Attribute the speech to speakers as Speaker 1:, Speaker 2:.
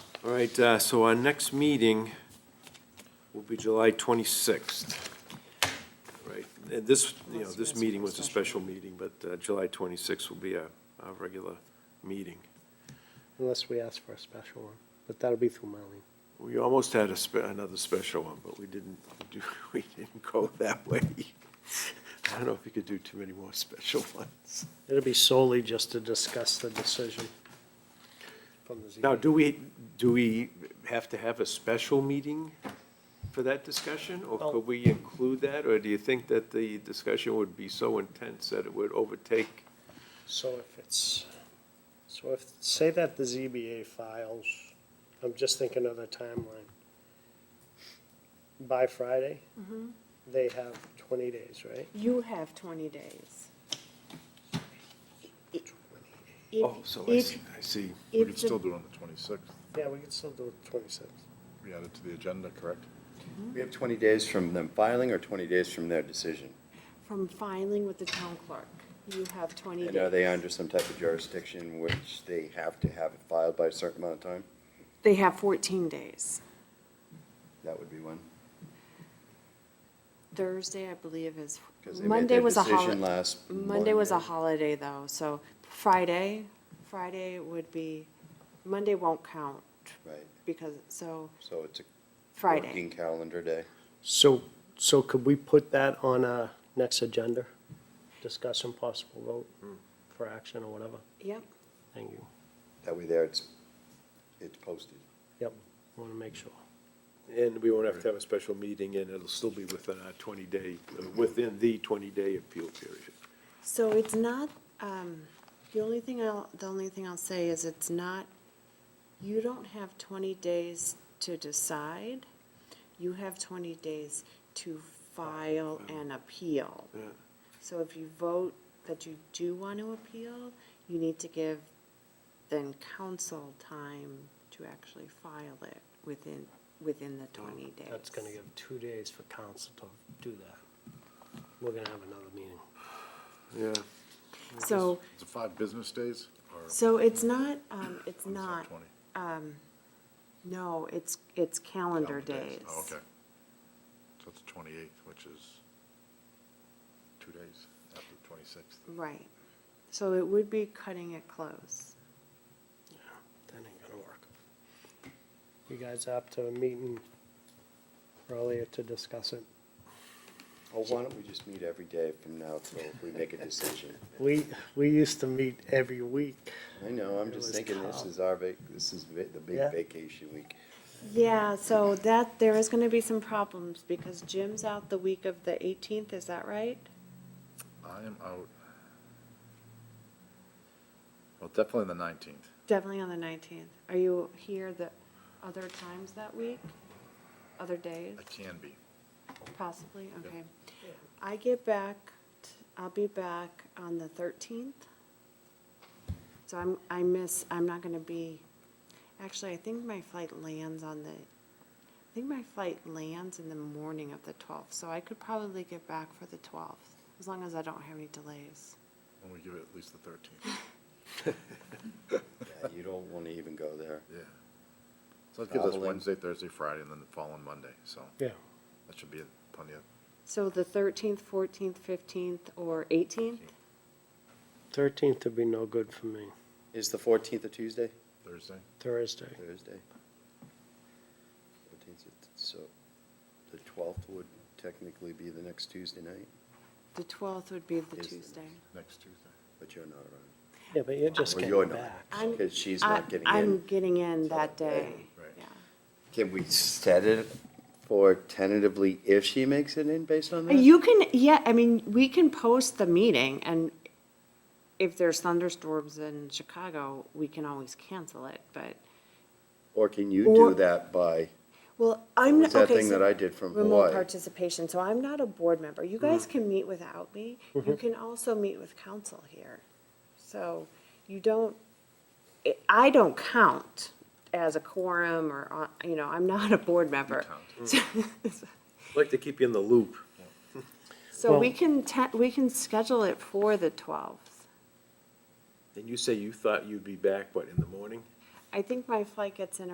Speaker 1: All right, uh, so our next meeting will be July 26th. Right, and this, you know, this meeting was a special meeting, but uh, July 26th will be our, our regular meeting.
Speaker 2: Unless we ask for a special one, but that'll be through Marlene.
Speaker 1: We almost had a, spe- another special one, but we didn't do, we didn't go that way. I don't know if we could do too many more special ones.
Speaker 2: It'll be solely just to discuss the decision from the
Speaker 1: Now,
Speaker 2: ZBA.
Speaker 1: do we, do we have to have a special meeting for that discussion? Or
Speaker 2: Well-
Speaker 1: could we include that? Or do you think that the discussion would be so intense that it would overtake?
Speaker 2: So if it's, so if, say that the ZBA files, I'm just thinking of the timeline. By Friday, they have twenty days, right?
Speaker 3: You have 20 days.
Speaker 4: Oh,
Speaker 3: If-
Speaker 1: Oh, so I
Speaker 3: if-
Speaker 1: see, I see.
Speaker 3: if
Speaker 5: We could
Speaker 3: the-
Speaker 5: still do it on the twenty-sixth.
Speaker 2: Yeah, we could still do twenty-six.
Speaker 5: We add it to the agenda, correct?
Speaker 4: We have 20 days from them filing or 20 days from their decision?
Speaker 3: From filing with the town clerk, you have 20 days.
Speaker 4: And are they under some type of jurisdiction which they have to have it filed by a certain amount of time?
Speaker 3: They have 14 days.
Speaker 4: That would be one.
Speaker 3: Thursday, I believe, is,
Speaker 4: 'Cause they made
Speaker 3: Monday
Speaker 4: their
Speaker 3: was a
Speaker 4: decision
Speaker 3: holiday.
Speaker 4: last
Speaker 3: Monday was a
Speaker 4: Monday.
Speaker 3: holiday, though, so Friday, Friday would be, Monday won't count
Speaker 4: Right,
Speaker 3: because, so
Speaker 4: so it's a
Speaker 3: Friday.
Speaker 4: working calendar day.
Speaker 2: So, so could we put that on our next agenda? Discussion possible vote for action or whatever?
Speaker 3: Yep,
Speaker 2: Thank you.
Speaker 4: That way there, it's, it's posted.
Speaker 2: Yep, want to make sure.
Speaker 1: And we won't have to have a special meeting and it'll still be within our twenty-day, uh, within the twenty-day appeal period.
Speaker 3: so it's not, um, the only thing I'll, the only thing I'll say is it's not, you don't have 20 days to decide. You have 20 days to file an appeal.
Speaker 1: Yeah.
Speaker 3: So if you vote that you do want to appeal, you need to give then council time to actually file it within, within the twenty days.
Speaker 2: Oh, That's going to give two days for council to do that. We're going to have another meeting.
Speaker 1: Yeah,
Speaker 3: So,
Speaker 5: Is it five business days or?
Speaker 3: so it's not, um, it's
Speaker 5: or is that
Speaker 3: not,
Speaker 5: 20?
Speaker 3: no, it's, it's calendar days.
Speaker 5: Oh, okay. So it's twenty-eighth, which is two days after the twenty-sixth.
Speaker 3: Right. So it would be cutting it close.
Speaker 2: That ain't going to work. You guys up to a meeting earlier to discuss it?
Speaker 4: Well, Oh, why don't we just meet every day from now till we make a decision?
Speaker 2: We, we used to meet every week.
Speaker 4: I know, I'm
Speaker 2: It was
Speaker 4: just thinking this
Speaker 2: tough.
Speaker 4: is our, vac- this is va- the big
Speaker 2: Yeah.
Speaker 4: vacation week.
Speaker 3: Yeah,
Speaker 5: Mm-hmm.
Speaker 3: so that, there is gonna be some problems because Jim's out the week of the eighteenth, is that right?
Speaker 5: I am out. Well, definitely the nineteenth.
Speaker 3: Definitely on the nineteenth. Are you here the other times that week? Other days,
Speaker 5: I can be.
Speaker 3: possibly? Okay. I get back, t- I'll be back on the thirteenth. So I'm, I miss, I'm not gonna be, actually, I think my flight lands on the, I think my flight lands in the morning of the twelfth, so I could probably get back for the twelfth, as long as I don't have any delays.
Speaker 5: When we give it at least the thirteenth,
Speaker 4: Yeah, You don't want to even go there.
Speaker 5: yeah. So that gives us
Speaker 4: Traveling.
Speaker 5: Wednesday, Thursday, Friday, and then the following Monday, so
Speaker 2: Yeah.
Speaker 5: that should be plenty of
Speaker 3: So the thirteenth, fourteenth, fifteenth, or eighteenth?
Speaker 2: Thirteenth would be no good for me,
Speaker 4: Is the 14th a Tuesday?
Speaker 5: Thursday.
Speaker 2: Thursday.
Speaker 4: Thursday. 14th, So the 12th would technically be the next Tuesday night,
Speaker 3: The twelfth would be the
Speaker 4: Is the
Speaker 3: Tuesday.
Speaker 5: Next Tuesday.
Speaker 4: but you're not around.
Speaker 2: Yeah, but you're just
Speaker 4: Well, you're
Speaker 2: getting
Speaker 4: not.
Speaker 2: back.
Speaker 3: I'm-
Speaker 4: Because she's
Speaker 3: I-
Speaker 4: not getting
Speaker 3: I'm
Speaker 4: in.
Speaker 3: getting in that day,
Speaker 5: Right.
Speaker 3: yeah.
Speaker 4: Can we set it for tentatively if she makes it in based on that?
Speaker 3: You can, yeah, I mean, we can post the meeting, and if there's thunderstorms in Chicago, we can always cancel it, but,
Speaker 4: Or can you
Speaker 3: Or-
Speaker 4: do that by,
Speaker 3: well, I'm.
Speaker 4: what's that
Speaker 3: okay,
Speaker 4: thing
Speaker 3: so-
Speaker 4: that I did from
Speaker 3: Remote
Speaker 4: Hawaii?
Speaker 3: participation, so I'm not a board member. You guys can meet without me. You can also meet with council here. So you don't, I- I don't count as a quorum or, on- you know, I'm not a board member. Mm.
Speaker 1: like to keep you in the loop.
Speaker 3: So we
Speaker 2: Well-
Speaker 3: can, te- we can schedule it for the 12th.
Speaker 1: And you say you thought you'd be back, what, in the morning?
Speaker 3: I think my flight gets in